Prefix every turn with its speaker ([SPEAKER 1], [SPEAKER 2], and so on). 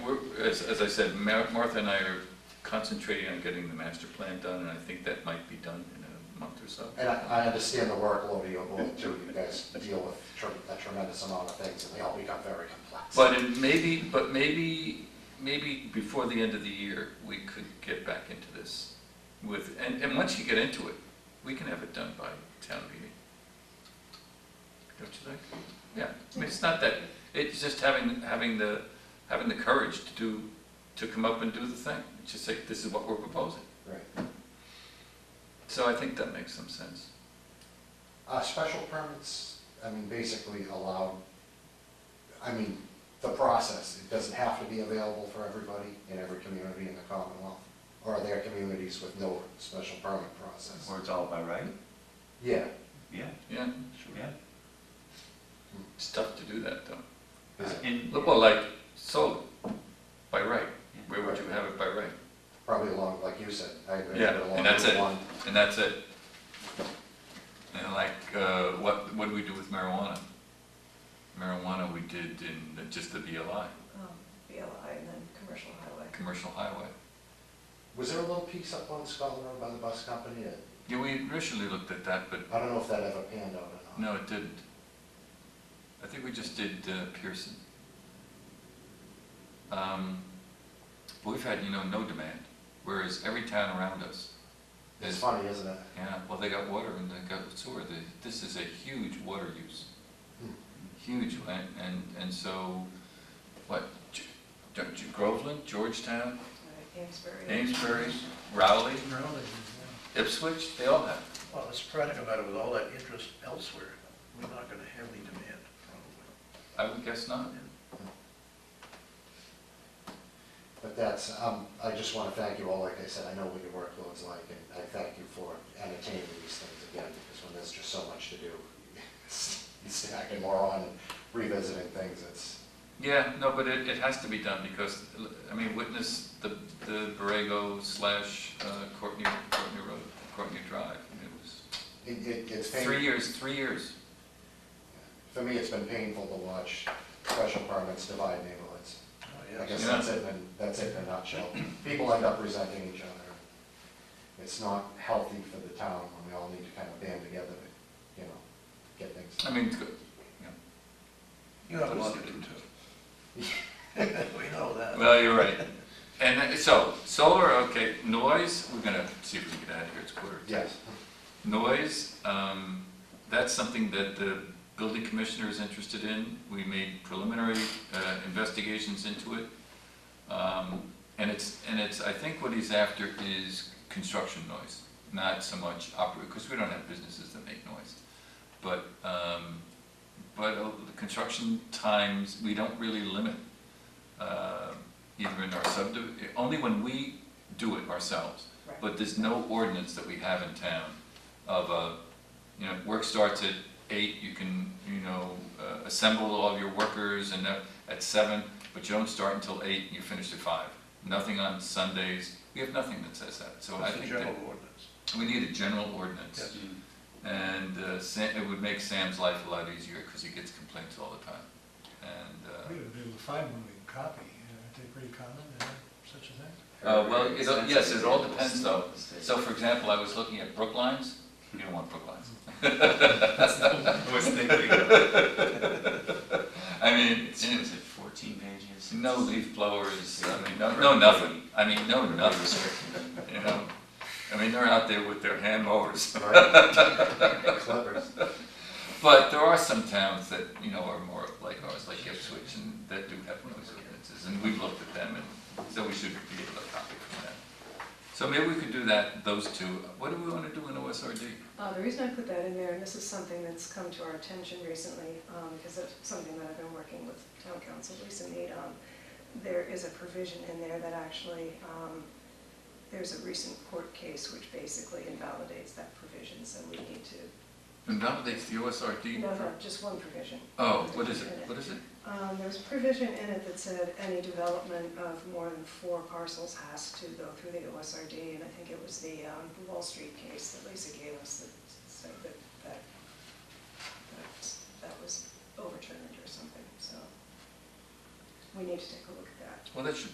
[SPEAKER 1] we're- as, as I said, Mar- Martha and I are concentrating on getting the master plan done, and I think that might be done in a month or so.
[SPEAKER 2] And I, I understand the workload you all too, you guys deal with tre- a tremendous amount of things, and they all become very complex.
[SPEAKER 1] But in maybe, but maybe, maybe before the end of the year, we could get back into this with, and, and once you get into it, we can have it done by town meeting. Don't you think? Yeah, I mean, it's not that, it's just having, having the, having the courage to do, to come up and do the thing. Just say, this is what we're proposing.
[SPEAKER 2] Right.
[SPEAKER 1] So I think that makes some sense.
[SPEAKER 2] Uh, special permits, I mean, basically allowed, I mean, the process, it doesn't have to be available for everybody in every community in the Commonwealth. Or are there communities with no special permit process?
[SPEAKER 3] Where it's all by right?
[SPEAKER 2] Yeah,
[SPEAKER 3] Yeah,
[SPEAKER 1] Yeah,
[SPEAKER 3] yeah.
[SPEAKER 1] it's tough to do that though.
[SPEAKER 3] And,
[SPEAKER 1] Well, like solar, by right. Where would you have it by right?
[SPEAKER 2] probably along, like you said, I agree,
[SPEAKER 1] Yeah,
[SPEAKER 2] along
[SPEAKER 1] and that's
[SPEAKER 2] Route
[SPEAKER 1] it.
[SPEAKER 2] one.
[SPEAKER 1] And that's it. And like, uh, what, what do we do with marijuana? Marijuana we did in the- just the BLI,
[SPEAKER 4] um, BLI and then commercial highway.
[SPEAKER 1] commercial highway.
[SPEAKER 2] Was there a little piece up on Scotland Road by the bus company? that-
[SPEAKER 1] Yeah, we initially looked at that, but
[SPEAKER 2] I don't know if that ever panned out or not.
[SPEAKER 1] no, it didn't. I think we just did uh, Pearson. Um, but We've had, you know, no demand, whereas every town around us
[SPEAKER 2] It's
[SPEAKER 1] is,
[SPEAKER 2] funny, isn't it?
[SPEAKER 1] yeah, well, they got water and they got sewer. They- This is a huge water use.
[SPEAKER 2] Hmm.
[SPEAKER 1] huge, and, and, and so, what, Ge- Ge- Groveland, Georgetown,
[SPEAKER 4] Right, Amesbury.
[SPEAKER 1] Amesbury, Rowley,
[SPEAKER 5] Really,
[SPEAKER 1] Ipswich, they all have.
[SPEAKER 5] yeah. Well, it's trying to come out of with all that interest elsewhere, we're not gonna have any demand,
[SPEAKER 1] I
[SPEAKER 5] probably.
[SPEAKER 1] would guess not.
[SPEAKER 2] But that's, um, I just wanna thank you all, like I said, I know what your workload's like, and I thank you for entertaining these things again, because when there's just so much to do, stacking more on, and revisiting things, it's,
[SPEAKER 1] Yeah, no, but it, it has to be done because, I mean, witness the, the Borrego slash uh, Courtney, Courtney Road, Courtney Drive. It was
[SPEAKER 2] it, it gets
[SPEAKER 1] three
[SPEAKER 2] painful.
[SPEAKER 1] years, three years.
[SPEAKER 2] For me, it's been painful to watch special permits divide neighborhoods.
[SPEAKER 5] Oh,
[SPEAKER 2] I
[SPEAKER 5] yes.
[SPEAKER 2] guess that's it, and that's it in a nutshell. People end up resenting each other. It's not healthy for the town when we all need to kind of band together to, you know, get things.
[SPEAKER 1] I mean, it's good. yeah.
[SPEAKER 5] You have a lot to do too. We know that.
[SPEAKER 1] Well, you're right. And uh, so, solar, okay, noise, we're gonna see if we can get out of here, it's quarter to
[SPEAKER 2] Yes.
[SPEAKER 1] Noise, um, that's something that the building commissioner is interested in. We made preliminary uh, investigations into it. Um, And it's, and it's, I think what he's after is construction noise, not so much opera, because we don't have businesses that make noise. But, um, but uh, the construction times, we don't really limit, uh, either in our subdiv, only when we do it ourselves.
[SPEAKER 4] Right.
[SPEAKER 1] But there's no ordinance that we have in town of a, you know, work starts at eight, you can, you know, uh, assemble all of your workers and that at seven, but you don't start until eight and you finish at five. Nothing on Sundays, we have nothing that says that, so I
[SPEAKER 5] It's a
[SPEAKER 1] think
[SPEAKER 5] general
[SPEAKER 1] that
[SPEAKER 5] ordinance.
[SPEAKER 1] we need a general ordinance. And uh, Sam, it would make Sam's life a lot easier because he gets complaints all the time.
[SPEAKER 6] We
[SPEAKER 1] And,
[SPEAKER 6] would be able to find one we can copy, you know, it'd be pretty common, uh, such a thing.
[SPEAKER 1] uh, uh, well, it- yes, it all depends though. uh, So for example, I was looking at Brooklines, you don't want Brooklines.
[SPEAKER 3] I was thinking,
[SPEAKER 1] I mean,
[SPEAKER 3] it's,
[SPEAKER 1] in-
[SPEAKER 3] was it fourteen pages?
[SPEAKER 1] No leaf blowers, I mean, no, no nothing, I mean, no nothing, you know? I mean, they're out there with their hand mowers,
[SPEAKER 2] Right. Clippers.
[SPEAKER 1] but there are some towns that, you know, are more like ours, like Ipswich, and that do have noise ordinances, and we've looked at them, and so we should be able to copy from that. So maybe we could do that, those two, what do we wanna do in OSRD?
[SPEAKER 4] Uh, the reason I put that in there, and this is something that's come to our attention recently, um, because of something that I've been working with town council, Lisa Mead on, there is a provision in there that actually, um, there's a recent court case which basically invalidates that provision, so we need to,
[SPEAKER 1] Invalidates the OSRD?
[SPEAKER 4] no, no, just one provision.
[SPEAKER 1] Oh, what is it, what is it?
[SPEAKER 4] Um, there was a provision in it that said any development of more than four parcels has to go through the OSRD, and I think it was the, um, the Wall Street case that Lisa gave us that said that, that, that, that was overturned or something, so.
[SPEAKER 7] we need to take a look at that.
[SPEAKER 4] Well, that should